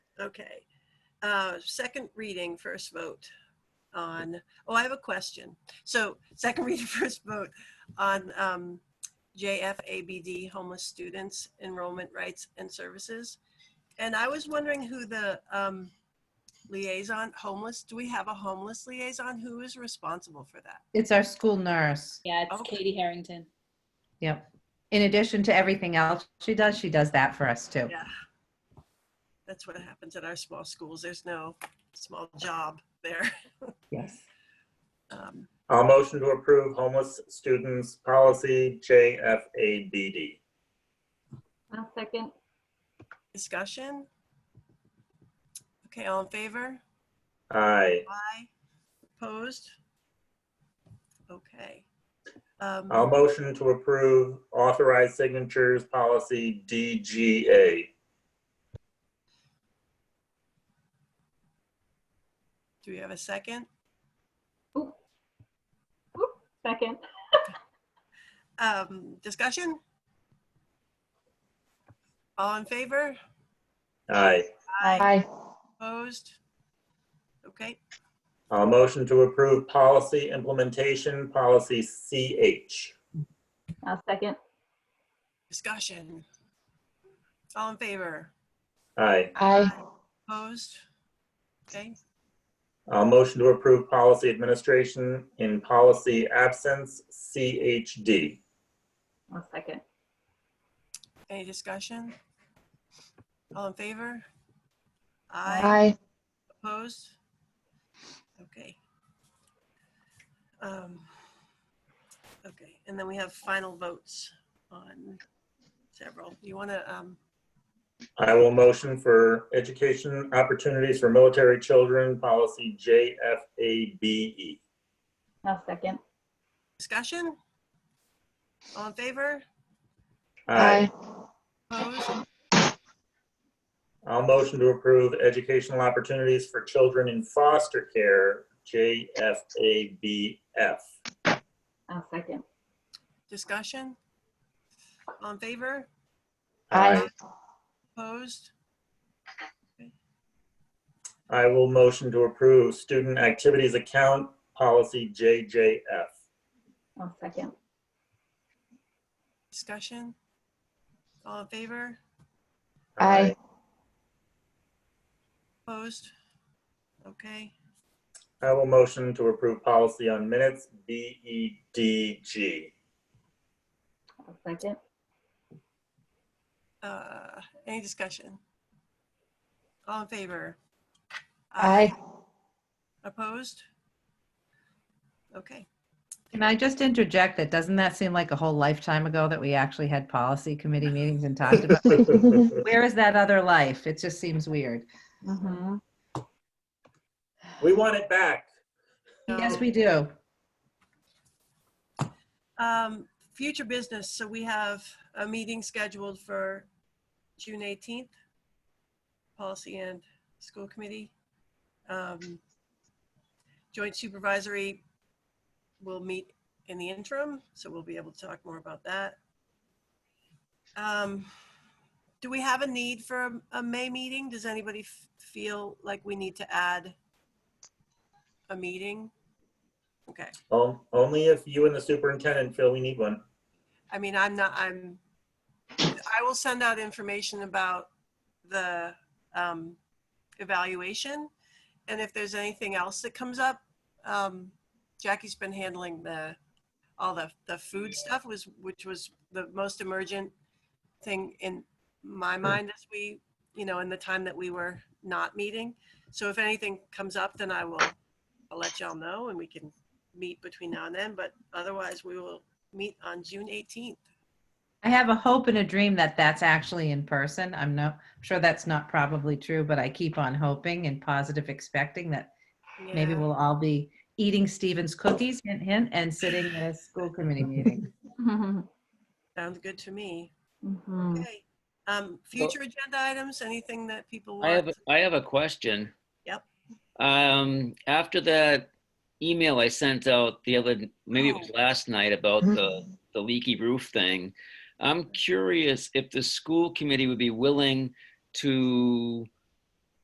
Okay. Uh, Second reading, first vote on, oh, I have a question. So second reading, first vote on um, JFABD homeless students enrollment rights and services. And I was wondering who the um, liaison, homeless, do we have a homeless liaison? Who is responsible for that? It's our school nurse. Yeah, it's Okay. Katie Harrington. Yep. In addition to everything else she does, she does that for us too. Yeah. That's what happens at our small schools. There's no small job there. Yes. Um, I'll Uh, motion to approve homeless students policy JFABD. I'll second. Discussion? Okay, all in favor? Aye. Aye. Opposed? Okay. Um, I'll Uh, motion to approve authorized signatures policy DGA. Do we have a second? Oop, Second. Um, Discussion? All in favor? Aye. Aye. Opposed? Okay, I'll Uh, motion to approve policy implementation policy CH. I'll second. discussion? All in favor? Aye. Aye. Opposed? Okay, I'll Uh, motion to approve policy administration in policy absence CHD. I'll second. any discussion? All in favor? Aye. Opposed? Okay. Um Okay, and then we have final votes on several. You want to, um I will motion for education opportunities for military children policy JFABE. I'll second. discussion? All in favor? Aye. Opposed? I'll motion to approve educational opportunities for children in foster care, JFABF. I'll second. Discussion? All in favor? Aye. Opposed? I will motion to approve student activities account policy JJF. I'll second. Discussion? All in favor? Aye. Opposed? Okay, I will motion to approve policy on minutes, E BEDG. I'll second. Uh any discussion? All in favor? Opposed? Okay, Can I just interject that doesn't that seem like a whole lifetime ago that we actually had policy committee meetings and talked about? Where is that other life? It just seems weird. Mhm. We want it back. Yes, No. we do. um, future business, so we have a meeting scheduled for June eighteenth. Policy and School Committee. Um, Joint Supervisory will meet in the interim, so we'll be able to talk more about that. Um, do we have a need for a, a May meeting? Does anybody f- feel like we need to add a meeting? Okay. On- Only if you and the superintendent feel we need one. I mean, I'm not, I'm, I will send out information about the um, evaluation. And if there's anything else that comes up, um, Jackie's been handling the, all the, the food stuff was, which was the most emergent thing in my mind as we, you know, in the time that we were not meeting. So if anything comes up, then I will, I'll let y'all know and we can meet between now and then, but otherwise we will meet on June 18th. I have a hope and a dream that that's actually in person. I'm not sure that's not probably true, but I keep on hoping and positive expecting that Maybe Yeah. we'll all be eating Stevens cookies, hint, hint, and sitting at a school committee meeting. Sounds good to me. Mm. Mhm. Okay. Um, future agenda items, anything that people I have want? I have a question. Yep. Um, after that email I sent out the other maybe it was last night about the the leaky roof thing, I'm curious if the school committee would be willing to